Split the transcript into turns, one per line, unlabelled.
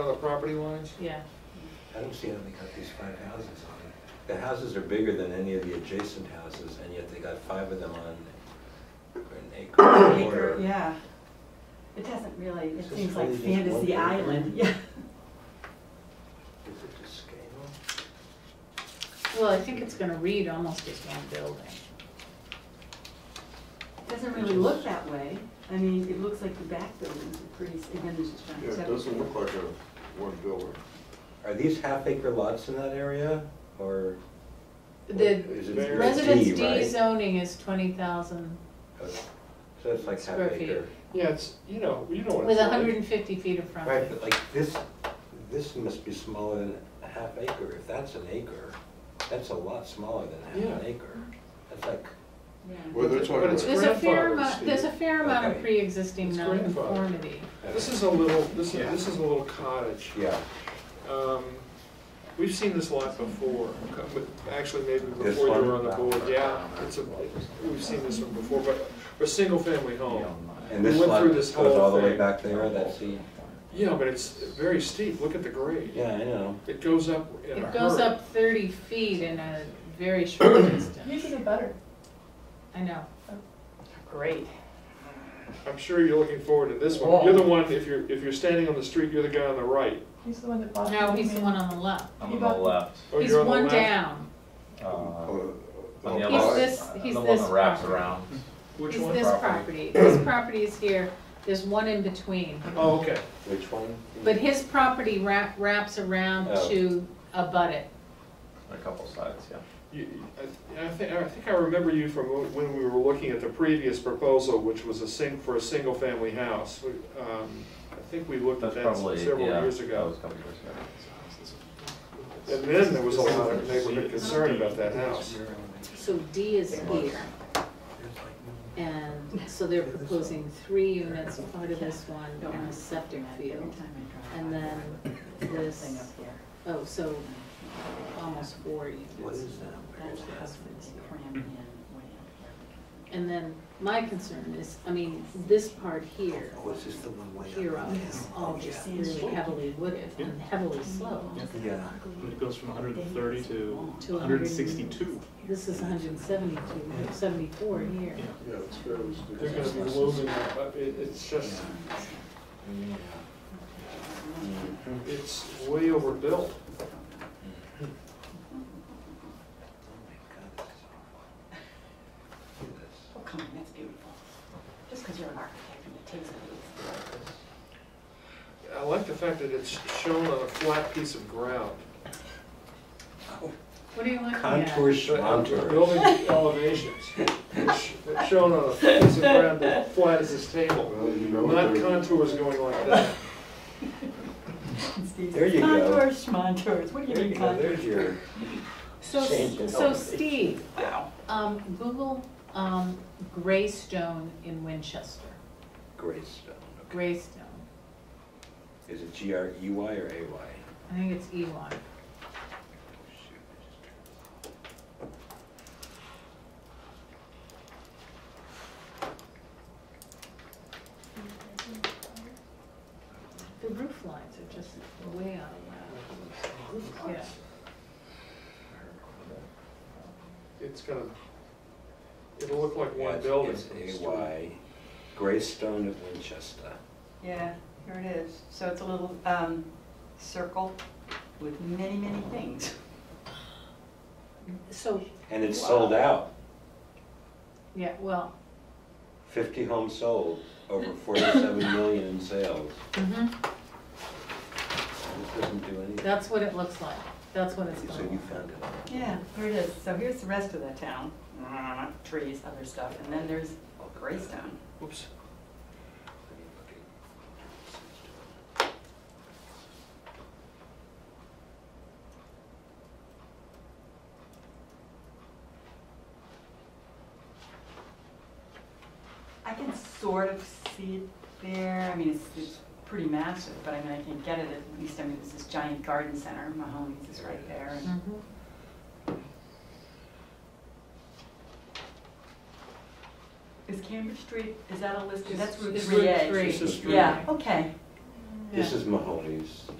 Other property lines?
Yeah,
I don't see how they got these five houses on it. The houses are bigger than any of the adjacent houses, and yet they got five of them on an acre or
Acre,
more.
yeah. It doesn't really,
It's
it
just
seems like
really just one
fantasy
big
island,
island.
yeah.
Is it to scale?
well, I think it's gonna read almost as one building.
It Doesn't really look that way. I mean, it looks like the back buildings are pretty, s- again, there's just
Yeah, it doesn't look like a one builder.
Are these half acre lots in that area, or?
The
is it-
Very-
it's
residence
D,
D
right?
zoning is twenty thousand
Okay. So that's like half
Square feet.
acre.
Yeah, it's, you know, you know what
with
it's like.
hundred and fifty feet of
Right,
frontage.
but like this, this must be smaller than a half acre. If that's an acre, that's a lot smaller than half an
Yeah.
acre. That's like,
yeah.
Well, they're talking But it's
There's a fair
grandfathered,
amount,
Steve.
there's a fair amount of
Okay.
pre-existing
It's grandfathered.
nonconformity.
This is a little, this is, this is a little cottage.
yeah,
Um, We've seen this lot before, co- but actually maybe
This
before you were on
one?
the board, yeah. It's a, we've seen this one before, but a single-family home.
and
We
this
went
lot
through
goes
this whole
all the way
thing.
back there, that's the,
Yeah, but it's very steep, look at the grade.
yeah, I know.
It goes up in a
It goes
hurry.
up thirty feet in a very short distance.
a butter.
I know.
Great.
I'm sure you're looking forward to this one. You're the one, if you're, if you're standing on the street, you're the guy on the right.
He's the one that bought.
No, he's the one on the left.
I'm
I'm
on
on
the
the left. Um,
Oh,
He's
you're on the
one
left.
down.
Uh, On
Oh,
the
He's
other,
this-
I'm
he's
the one
this
that wraps
property.
around.
Which
He's
one?
this property. This property is here. There's one in between.
Oh, okay.
Which one?
But his property wrap, wraps around
Oh.
to abut it.
A couple sides, yeah.
You- I I think, I think I remember you from when we were looking at the previous proposal, which was a sing, for a single-family house. We- um, I think we looked at
That's
that
probably,
several
yeah, that
years
was a
ago.
couple years ago.
And then there was a lot of neighborhood concern about that house.
So D is here, and so they're proposing three units, part of this one, and a septic field. And then
Thing
this,
up here.
oh, so almost four
What
units.
is that? Where is
That's the
that?
husband's crammed in way up
And then my concern is, I mean, this part here,
Oh, is this the one way up?
here on is all
Oh,
just really heavily wooded and heavily sloped.
Yeah.
It goes from 130 to
To
162.
This is hundred and seventy-two, seventy-four here.
Yeah, it's very. They're gonna be losing, it, but it, it's just,
Oh,
it's way overbuilt.
here. Oh, come on, that's beautiful. Just because you're an architect and it takes it.
I like the fact that it's shown on a flat piece of ground.
What do you looking at?
Contour
The
schmontour.
Building elevations, which, that's shown on a piece of ground as flat as this table,
Well, you know what
not
they're-
contours going like that.
There you go.
Contours, schmontours, what do you
There you
mean
go,
contours?
there's your,
So,
Change
so
it.
Steve, um, Google, um, Greystone in Winchester,
Greystone. okay.
Greystone,
Is it G R E Y or A Y?
I think it's Elon. The roof lines are just way out of whack. Yeah.
It's gonna, it'll look like
Yeah,
one
it's-
building. from the
It's A
street.
Y, Greystone at Winchester.
Yeah, here it is. So it's a little, um, circle with many, many things.
So,
And it's sold out,
yeah, well,
fifty homes sold, over forty-seven million in sales.
mhm,
This doesn't do anything.
that's what it looks like, that's what it's
So
gonna
you
look
found it.
Yeah.
Here it is, so here's the rest of the town, Uh, trees, other stuff, and then there's Greystone.
Oops.
I can sort of see it there. I mean, it's, it's pretty massive, but I mean, I can get it at least. I mean, it's this giant garden center. Mahoney's is right there.
like.
and-
Mhm.
Is Cambridge Street, is that a list? That's Route
It's
three A.
Route
This is
three.
Route
Yeah, okay.
This is Mahoney's.